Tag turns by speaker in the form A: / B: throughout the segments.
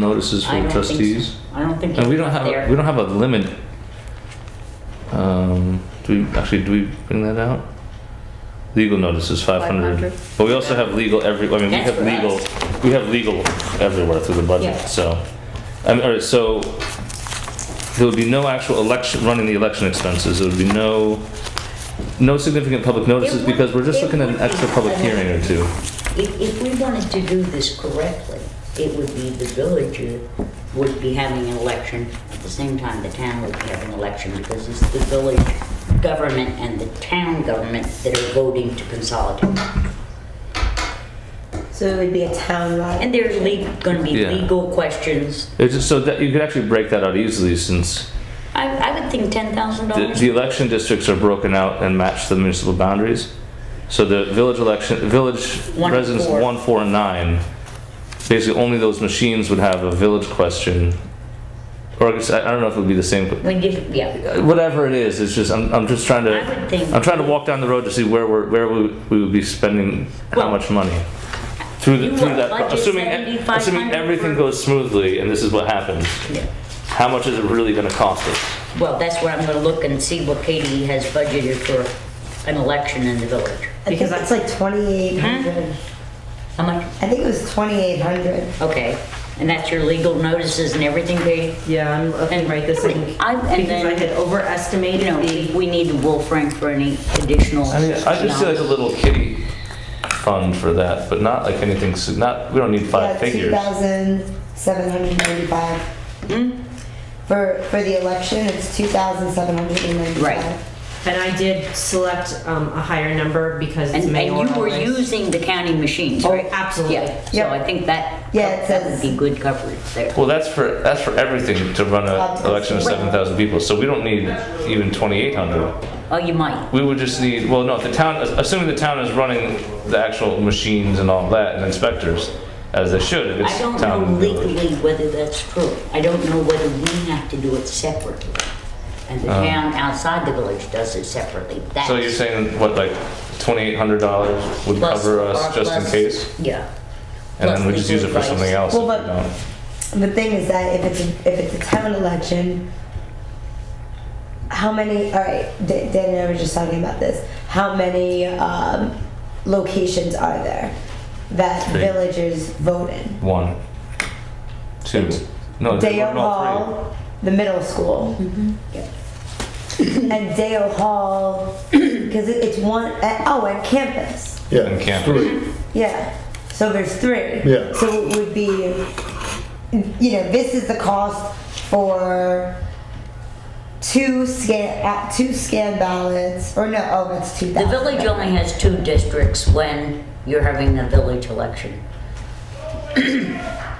A: notices
B: I
A: for
B: don't think so.
A: trustees?
B: I don't think.
A: And we don't
B: it's
A: have,
B: there.
A: we don't have a limit. Um, do we, actually, do we bring that out? Legal notices, five hundred.
C: 500.
A: But we also have legal every, I mean, we
B: That's
A: have
B: for
A: legal, we have legal everywhere through the budget,
B: Yeah.
A: so. I mean, all right, so there would be no actual election, running the election expenses. There would be no, no significant public notices
B: would-
A: because we're just
B: it
A: looking at an
B: would be
A: extra public
B: an-
A: hearing or two.
B: If, if we wanted to do this correctly, it would be the village would be having an election, at the same time the town would be having an election, because it's the village government and the town government that are voting to consolidate.
C: So it would be a townwide.
B: And there's le, gonna be
A: Yeah.
B: legal questions.
A: It's just so that, you could actually break that out easily since
B: I, I would think ten thousand
A: The,
B: dollars.
A: the election districts are broken out and match the municipal boundaries. So the village election, village
B: One and
A: residents
B: four.
A: one, four, and nine, basically only those machines would have a village question. Or I guess, I I don't know if it would be the same, but uh,
B: When you, yeah,
A: whatever it is, it's just, I'm, I'm just trying to,
B: I would think-
A: I'm trying to walk down the road to see where we're, where we, we would be spending how
B: Well,
A: much money. Through,
B: you
A: the- through
B: want
A: that, pro-
B: budget
A: assuming, e-
B: 7,500
A: assuming everything
B: for-
A: goes smoothly and this is what happens,
B: yeah.
A: how much is it really gonna cost us?
B: Well, that's where I'm gonna look and see what Katie has budgeted for an election in the village.
C: I think it's like 2,800.
B: How much?
C: I think it was 2,800.
B: Okay, and that's your legal notices and everything, Katie?
D: Yeah, I'm looking right this in,
B: I- and
D: because I
B: then-
D: had
B: You
D: overestimated
B: know,
D: the,
B: we- we need the Wolf Frank for any additional.
A: I mean, I just see like a
B: knowledge.
A: little kitty fund for that, but not like anything, s- not, we don't need five
C: Yeah,
A: figures.
C: 2,795.
B: Hmm?
C: For, for the election, it's 2,795.
B: Right.
D: and I did select um, a higher number because
B: And
D: it's mayoral.
B: and you were
D: race.
B: using the county machines,
D: Oh,
B: right?
D: absolutely.
B: Yeah, so
C: Yep.
B: I think that,
C: Yeah, it
B: that would
C: says-
B: be good coverage there.
A: Well, that's for, that's for everything to run
C: Up
A: an
C: to
A: election of
C: six.
A: seven thousand people, so we don't need even twenty-eight hundred.
B: Oh, you might.
A: We would just need, well, no, if the town, assuming the town is running the actual machines and all that and inspectors, as they should, if
B: I
A: it's
B: don't
A: town.
B: know
A: and village.
B: legally whether that's true. I don't know whether we have to do it separately. And the town outside the village does it separately. That's
A: Uh. So you're saying, what, like twenty-eight hundred dollars would
B: plus-
A: cover
B: or
A: us just in
B: plus-
A: case?
B: Yeah.
A: And
B: plus
A: then we just use it
B: legal
A: for something else
B: advice.
A: if we
C: Well, but-
A: don't?
C: The thing is that if it's, a- if it's a town election, how many, all right, D- Dan and I were just talking about this. How many, um, locations are there that
A: Three.
C: villagers vote in?
A: One, two. No, they
C: Dale
A: weren't all three.
C: Hall, the middle school.
B: Yep. Mm-hmm.
C: And Dale Hall, because it, it's one, uh, oh, and campus.
E: Yeah.
A: And campus.
E: three.
C: Yeah. So there's three.
E: Yeah.
C: So it would be, you know, this is the cost for two scan, at two scan ballots, or no, oh, that's two
B: The
C: thousand.
B: village only has two districts when you're having a village election.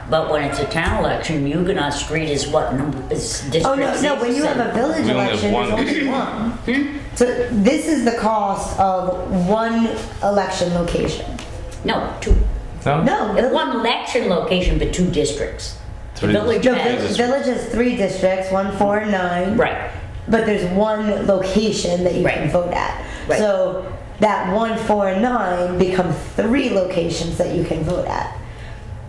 B: But when it's a town election, Huguenot Street is what number, is district
C: Oh, no, no, when you have a village
A: We only have
C: election, there's
A: one.
C: only one.
B: Hmm?
C: So this is the cost of one election location.
B: No, two,
A: No?
C: No, the-
B: one election location, but two districts. The
A: Three
B: village
C: No, vi-
B: has,
C: village has three districts, one, four, and nine.
B: right,
C: But there's one location that you
B: Right.
C: can vote at.
B: Right.
C: So that one, four, and nine become three locations that you can vote at.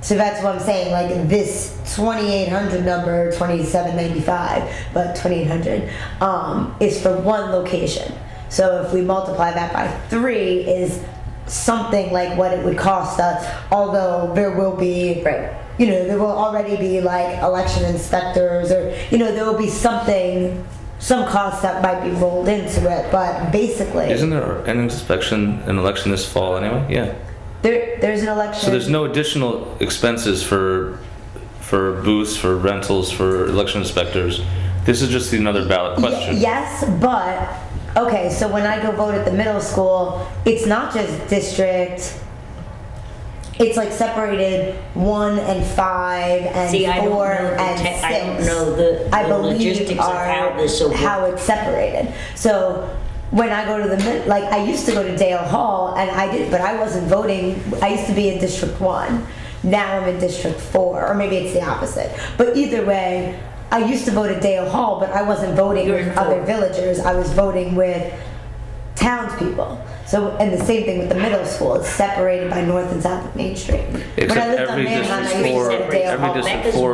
C: So that's what I'm saying, like this 2800 number, 2795, but 2800 um, is for one location. So if we multiply that by three is something like what it would cost us, although there will be
B: right.
C: you know, there will already be like election inspectors or, you know, there will be something, some costs that might be rolled into it, but basically,
A: Isn't there an inspection, an election this fall anyway? Yeah.
C: there, there's an election.
A: So there's no additional expenses for, for booths, for rentals, for election inspectors. This is just another ballot
C: Ye-
A: question.
C: Yes, but, okay, so when I go vote at the middle school, it's not just district, it's like separated one and five
B: See, I
C: and
B: don't
C: four
B: know the
C: and
B: te-
C: six.
B: I don't know the-
C: I
B: the
C: believe
B: logistics of
C: are
B: how this will work.
C: how it's separated. So when I go to the mid- like I used to go to Dale Hall and I did, but I wasn't voting. I used to be in District One. Now I'm in District Four, or maybe it's the opposite. But either way, I used to vote at Dale Hall, but I wasn't voting
B: You're in
C: with
B: four.
C: other villagers. I was voting with townspeople. So and the same thing with the middle school. It's separated by North and South of Main Street.
A: Except
C: when I lived on
A: every
C: Manheim, I
A: district
C: used to
A: four,
C: go to Dale
A: every
C: Hall.
A: district
B: That is
A: four